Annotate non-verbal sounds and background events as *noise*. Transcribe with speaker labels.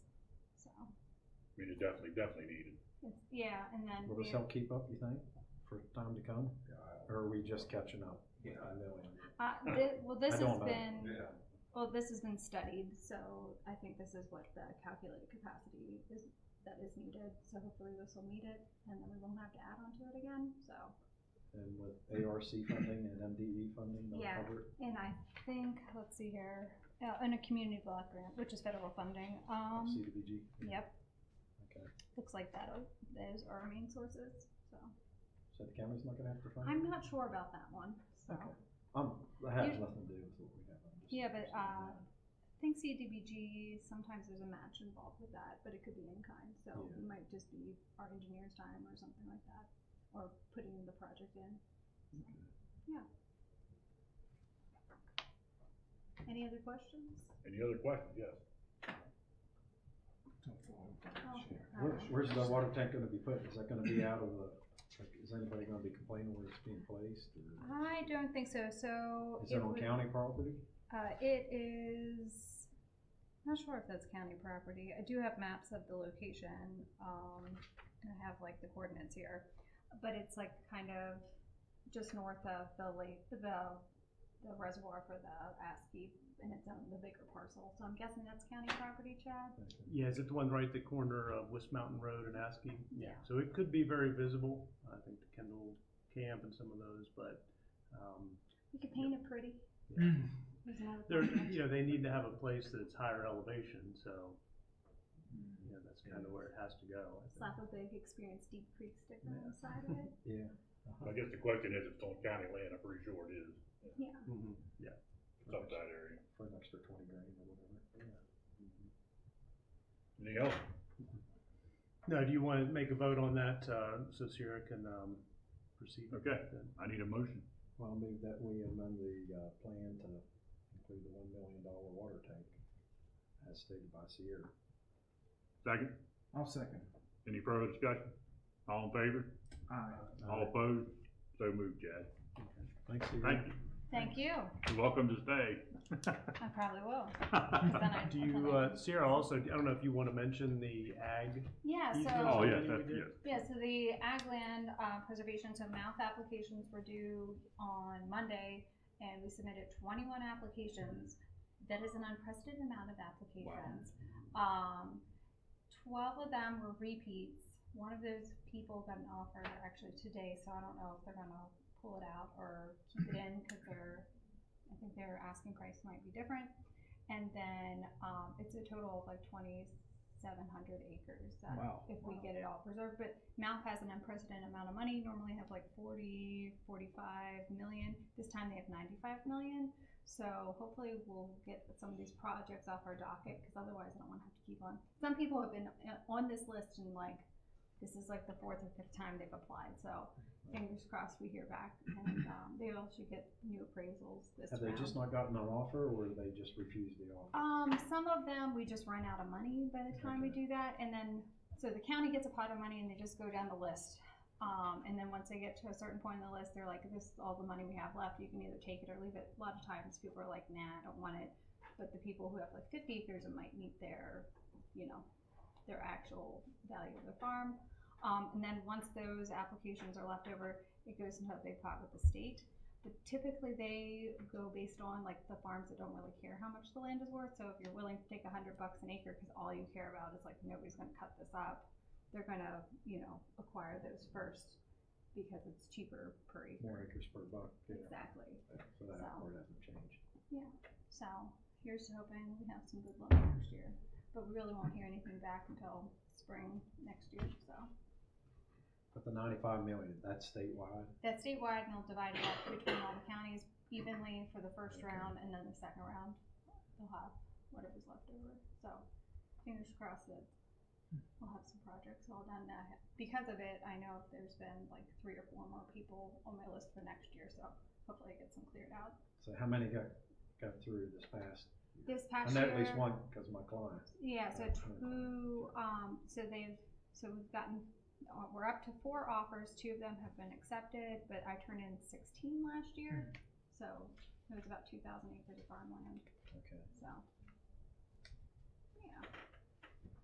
Speaker 1: mean, it definitely, definitely needed.
Speaker 2: It's- Yeah, and then,
Speaker 3: Will
Speaker 2: we-
Speaker 3: this help keep up, you think, for time to come? Or are we just catching up?
Speaker 4: Yeah.
Speaker 3: I know.
Speaker 2: uh,
Speaker 3: *coughs*
Speaker 2: thi- well, this
Speaker 3: I don't
Speaker 2: has
Speaker 3: know.
Speaker 2: been,
Speaker 4: Yeah.
Speaker 2: well, this has been studied, so I think this is what the calculated capacity is, that is needed, so hopefully this will meet it, and then we won't have to add on to it again, so.
Speaker 3: And with ARC funding and MDE funding, they'll
Speaker 2: Yeah.
Speaker 3: cover it.
Speaker 2: And I think, let's see here, uh, in a community block grant, which is federal funding, um,
Speaker 3: CDBG?
Speaker 2: yep,
Speaker 3: Okay.
Speaker 2: looks like that, uh, those are our main sources, so.
Speaker 3: So the county's not gonna have to fund it?
Speaker 2: I'm not sure about that one, so.
Speaker 3: Okay. I'm, that has
Speaker 2: You-
Speaker 3: nothing to do with what we have. I'm just
Speaker 2: Yeah, but,
Speaker 3: interested in
Speaker 2: uh,
Speaker 3: that.
Speaker 2: I think CDBG, sometimes there's a match involved with that, but it could be in kind, so
Speaker 3: Yeah.
Speaker 2: it might just be our engineer's time or something like that, or putting the project in. Yeah. Any other questions?
Speaker 1: Any other questions? Yes.
Speaker 2: Oh,
Speaker 3: Where,
Speaker 2: uh,
Speaker 3: where's the water tank gonna be put? Is that gonna be out of the, like, is anybody gonna be complaining where it's being placed? Or
Speaker 2: I don't think so, so.
Speaker 3: is it on
Speaker 2: Uh, would-
Speaker 3: county property?
Speaker 2: Uh, it is, not sure if that's county property. I do have maps of the location, um, and I have like the coordinates here. But it's like kind of just north of the lake, the, the reservoir for the ASCII, and it's on the bigger parcel. So I'm guessing that's county property, Chad?
Speaker 5: Yeah, is it the one right at the corner of West Mountain Road and Askey?
Speaker 2: Yeah.
Speaker 5: So it could be very visible, I think the Kendall Camp and some of those, but, um,
Speaker 2: We could paint it
Speaker 5: *clears throat*
Speaker 2: pretty. There's another
Speaker 5: they're,
Speaker 2: project.
Speaker 5: you know, they need to have a place that's higher elevation, so, you know, that's kind of where it has to go. I think.
Speaker 2: *laughs* Slap a big Experience Deep Creek sticker on the side of
Speaker 5: *laughs*
Speaker 2: it.
Speaker 3: Yeah.
Speaker 1: I guess the question is, if it's on county land, I'm pretty sure it is,
Speaker 2: Yeah.
Speaker 5: Mhm.
Speaker 1: it's up that area.
Speaker 3: For an extra twenty grand or whatever.
Speaker 1: Anything else?
Speaker 5: No, do you want to make a vote on that, uh, so Sierra can, um, proceed? with
Speaker 1: Okay.
Speaker 5: that then?
Speaker 1: I need a motion.
Speaker 3: Well, I'll move that we amend the, uh, plan to include the one million dollar water tank as stated by Sierra.
Speaker 1: Second,
Speaker 4: I'll second.
Speaker 1: any further discussion? All in favor?
Speaker 4: Aye.
Speaker 1: All opposed? So moved, Chad.
Speaker 3: Thanks, Sierra.
Speaker 1: Thank you.
Speaker 2: Thank you.
Speaker 1: You're welcome to stay.
Speaker 2: I probably will. 'cause *laughs* then I-
Speaker 5: Do
Speaker 2: then
Speaker 5: you,
Speaker 2: I-
Speaker 5: uh, Sierra also, I don't know if you want to mention the ag?
Speaker 2: Yeah,
Speaker 5: you
Speaker 2: so.
Speaker 5: can-
Speaker 1: Oh, yes,
Speaker 5: yeah,
Speaker 1: that's,
Speaker 5: we did.
Speaker 1: yes.
Speaker 2: Yeah, so the ag land uh, preservation, so mouth applications were due on Monday, and we submitted twenty-one applications. That is an unprecedented amount of applications. Um, twelve of them were repeats. One of those people got an offer actually today, so I don't know if they're gonna pull it out or keep it in, cause they're, I think their asking price might be different. And then, um, it's a total of like twenty-seven hundred acres that
Speaker 4: Wow.
Speaker 2: if we get it all preserved, but Mouth has an unprecedented amount of money, normally have like 40, 45 million. This time they have 95 million. So hopefully we'll get some of these projects off our docket because otherwise I don't want to have to keep on. Some people have been uh, on this list and like, this is like the fourth or fifth time they've applied. So fingers crossed we hear back and um, they all should get new appraisals this
Speaker 3: Have they
Speaker 2: round.
Speaker 3: just not gotten an offer or do they just refuse the offer?
Speaker 2: Um, some of them we just run out of money by the time we
Speaker 3: Okay.
Speaker 2: do that, and then so the county gets a pot of money and they just go down the list. Um, and then once they get to a certain point in the list, they're like, "This is all the money we have left. You can either take it or leave it." A lot of times, people are like, "Nah, I don't want it," but the people who have like 50 acres and might meet their, you know, their actual value of the farm. Um, and then once those applications are left over, it goes into a big pot with the state. But typically, they go based on like the farms that don't really care how much the land is worth. So if you're willing to take a hundred bucks an acre, because all you care about is like nobody's going to cut this up, they're going to you know acquire those first because it's cheaper per
Speaker 3: More
Speaker 2: acre.
Speaker 3: acres per buck, yeah.
Speaker 2: Exactly.
Speaker 3: So that
Speaker 2: So-
Speaker 3: part hasn't changed.
Speaker 2: So here's to hoping we have some good luck next year. But we really won't hear anything back until spring next year. So
Speaker 3: But the ninety-five million, that's statewide?
Speaker 2: that's statewide, and they'll divide it up between all the counties evenly for the first
Speaker 3: Okay.
Speaker 2: round, and then the second round, they'll have whatever's left over. So fingers crossed that we'll have some projects all done. Now, because of it, I know there's been like three or four more people on my list for next year, so hopefully I get some cleared out.
Speaker 3: So how many got, got through this past?
Speaker 2: This
Speaker 3: I
Speaker 2: past
Speaker 3: know
Speaker 2: year.
Speaker 3: at least one, cause my client,
Speaker 2: Yeah, so
Speaker 3: That's kinda
Speaker 2: two, um, so they've, so we've gotten, uh, we're up to four offers, two of them have been accepted, but I turned in sixteen last year. So it was about two thousand acres of farmland,
Speaker 3: okay.
Speaker 2: so